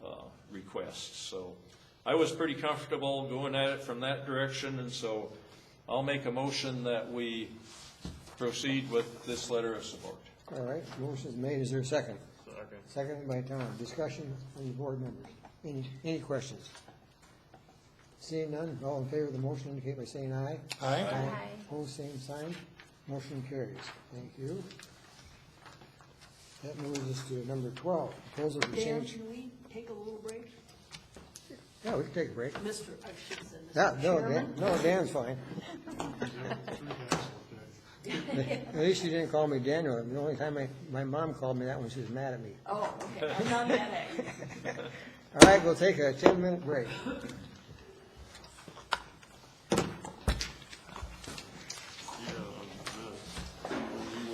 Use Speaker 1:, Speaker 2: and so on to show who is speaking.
Speaker 1: uh, requests. So I was pretty comfortable going at it from that direction, and so I'll make a motion that we proceed with this letter of support.
Speaker 2: All right, motion's made, is there a second? Seconded by Tom, discussion from the board members. Any, any questions? Seeing none, all in favor of the motion indicate by saying aye.
Speaker 3: Aye.
Speaker 2: Aye. Pose same sign, motion carries. Thank you. That moves us to number twelve, proposal for
Speaker 4: Dan,
Speaker 2: change.
Speaker 4: can we take a little break?
Speaker 2: Yeah, we can take a break.
Speaker 4: Mr., I should say, Mr.
Speaker 2: No, no, Dan,
Speaker 4: Chairman?
Speaker 2: no, Dan's fine. At least you didn't call me Daniel. The only time my, my mom called me that when she was mad at me.
Speaker 4: Oh, okay, I'm not mad at you.
Speaker 2: All right, we'll take a ten-minute break.